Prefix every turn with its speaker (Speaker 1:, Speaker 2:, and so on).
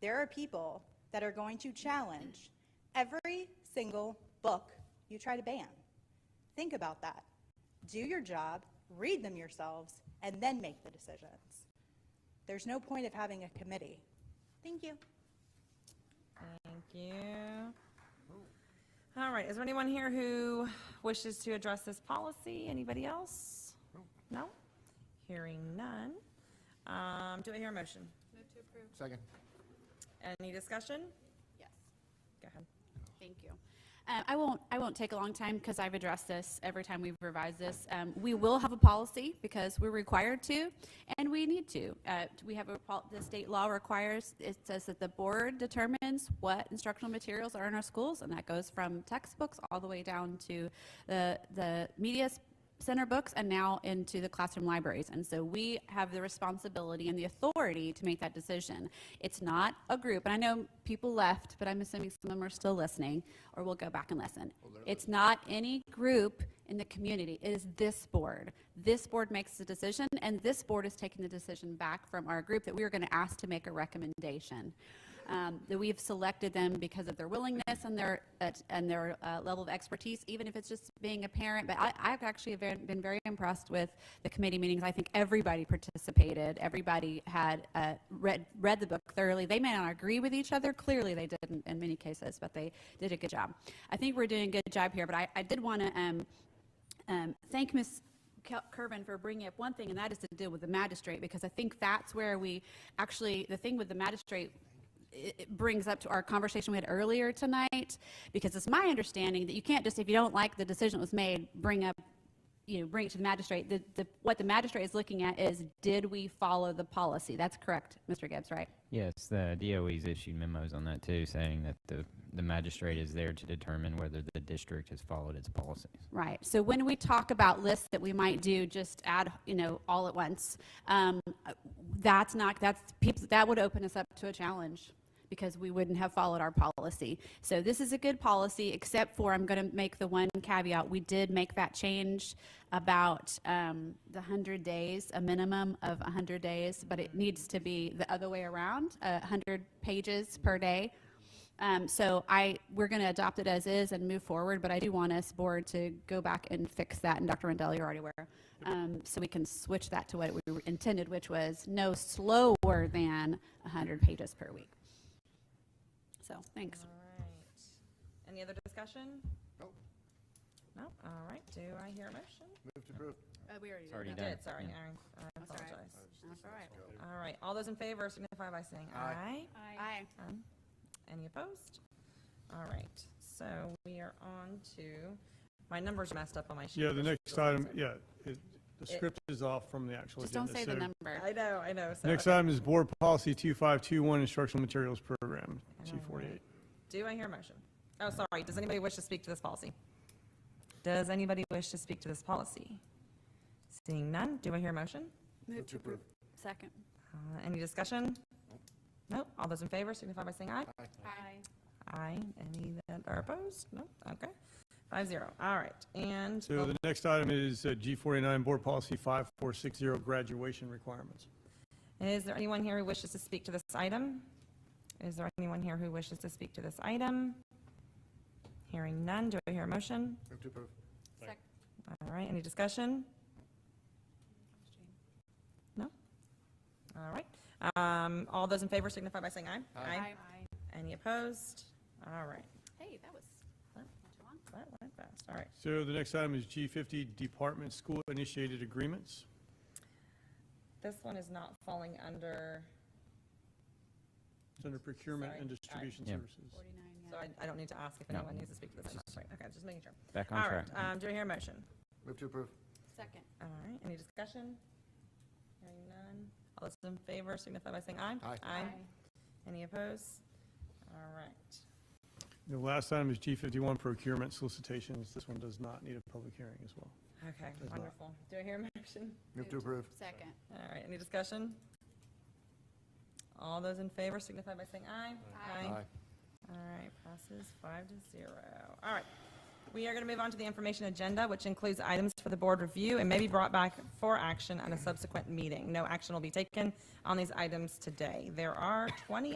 Speaker 1: there are people that are going to challenge every single book you try to ban. Think about that. Do your job, read them yourselves, and then make the decisions. There's no point of having a committee. Thank you.
Speaker 2: Thank you. All right, is there anyone here who wishes to address this policy? Anybody else? No? Hearing none. Um, do I hear a motion?
Speaker 3: Second.
Speaker 2: Any discussion?
Speaker 4: Yes,
Speaker 2: Go ahead.
Speaker 4: thank you. Um, I won't, I won't take a long time because I've addressed this every time we've revised this. Um, We will have a policy because we're required to and we need to. Uh, We have a, pol- the state law requires, it says that the board determines what instructional materials are in our schools and that goes from textbooks all the way down to the, the media s- center books and now into the classroom libraries. And so we have the responsibility and the authority to make that decision. It's not a group, and I know people left, but I'm assuming some of them are still listening or will go back and listen. It's not any group in the community, it is this board. This board makes the decision, and this board is taking the decision back from our group that we are going to ask to make a recommendation um, that we've selected them because of their willingness and their, at- and their uh, level of expertise, even if it's just being a parent. But I, I've actually ve- been very impressed with the committee meetings. I think everybody participated. Everybody had uh, read, read the book thoroughly. They may not agree with each other. Clearly, they didn't in many cases, but they did a good job. I think we're doing a good job here, but I, I did want to um, um, thank Ms. Kel- Kervin for bringing up one thing, and that is to deal with the magistrate, because I think that's where we, actually, the thing with the magistrate, it it brings up to our conversation we had earlier tonight, because it's my understanding that you can't just, if you don't like the decision that was made, bring up you know, bring it to the magistrate, the, the, what the magistrate is looking at is, did we follow the policy? That's correct, Mr. Gibbs, right?
Speaker 5: Yes, the DOE's issued memos on that too, saying that the, the magistrate is there to determine whether the district has followed its policies.
Speaker 4: Right. So when we talk about lists that we might do, just add, you know, all at once, um, that's not, that's, people, that would open us up to a challenge because we wouldn't have followed our policy. So this is a good policy, except for, I'm going to make the one caveat, we did make that change about um, the 100 days, a minimum of 100 days, but it needs to be the other way around, uh, 100 pages per day. Um, so I, we're going to adopt it as is and move forward, but I do want us board to go back and fix that, and Dr. Rendell, you're already aware. Um, so we can switch that to what we intended, which was no slower than 100 pages per week. So, thanks.
Speaker 2: All right. Any other discussion?
Speaker 3: Nope.
Speaker 2: No? All right, do I hear a motion?
Speaker 3: Move to approve.
Speaker 4: we already
Speaker 5: It's already
Speaker 2: You
Speaker 5: done.
Speaker 2: did, sorry, I-
Speaker 5: Yeah.
Speaker 2: I
Speaker 4: That's all right.
Speaker 2: apologize.
Speaker 4: That's all right.
Speaker 2: All right, all those in favor signify by saying aye.
Speaker 3: Aye.
Speaker 4: Aye.
Speaker 2: Um, Any opposed? All right, so we are on to, my number's messed up on my sheet.
Speaker 6: Yeah, the next item, yeah, it, the
Speaker 2: It-
Speaker 6: script is off from the actual
Speaker 4: Just
Speaker 6: agenda.
Speaker 4: don't say the
Speaker 6: so-
Speaker 4: number.
Speaker 2: I know, I know, so.
Speaker 6: Next item is Board Policy 2521, Instructional Materials Program, G48.
Speaker 2: Do I hear a motion? Oh, sorry, does anybody wish to speak to this policy? Does anybody wish to speak to this policy? Seeing none, do I hear a motion?
Speaker 3: Move to approve.
Speaker 4: Second.
Speaker 2: Uh, Any discussion? No, all those in favor signify by saying aye.
Speaker 4: Aye.
Speaker 2: Aye, any that are opposed? No, okay, five zero, all right, and.
Speaker 6: So the next item is uh, G49, Board Policy 5460, Graduation Requirements.
Speaker 2: Is there anyone here who wishes to speak to this item? Is there anyone here who wishes to speak to this item? Hearing none, do I hear a motion?
Speaker 3: Move to approve.
Speaker 2: All right, any discussion? No? All right. Um, All those in favor signify by saying aye.
Speaker 3: Aye.
Speaker 2: Any opposed? All right,
Speaker 4: Hey, that was not too long.
Speaker 2: that went fast, all right.
Speaker 6: So the next item is G50, Department School Initiated Agreements.
Speaker 2: This one is not falling under,
Speaker 6: It's under Procurement
Speaker 2: Sorry.
Speaker 6: and Distribution
Speaker 5: Yeah.
Speaker 6: Services.
Speaker 4: 49,
Speaker 2: so I- I don't need to ask if
Speaker 5: No.
Speaker 2: anyone needs to speak to this. item. Right, Okay, just making sure.
Speaker 5: Back on
Speaker 2: All right,
Speaker 5: track.
Speaker 2: um, do I hear a motion?
Speaker 3: Move to approve.
Speaker 4: Second.
Speaker 2: All right, any discussion? Hearing none. All those in favor signify by saying aye.
Speaker 3: Aye.
Speaker 2: Any opposed? All right.
Speaker 6: The last item is G51, Procurement Solicitations. This one does not need a public hearing as well.
Speaker 2: Okay,
Speaker 6: not.
Speaker 2: wonderful. Do I hear a motion?
Speaker 3: Move to approve.
Speaker 4: Second.
Speaker 2: All right, any discussion? All those in favor signify by saying aye. All right, passes five to zero. All right. We are going to move on to the information agenda, which includes items for the board review and may be brought back for action at a subsequent meeting. No action will be taken on these items today. There are 20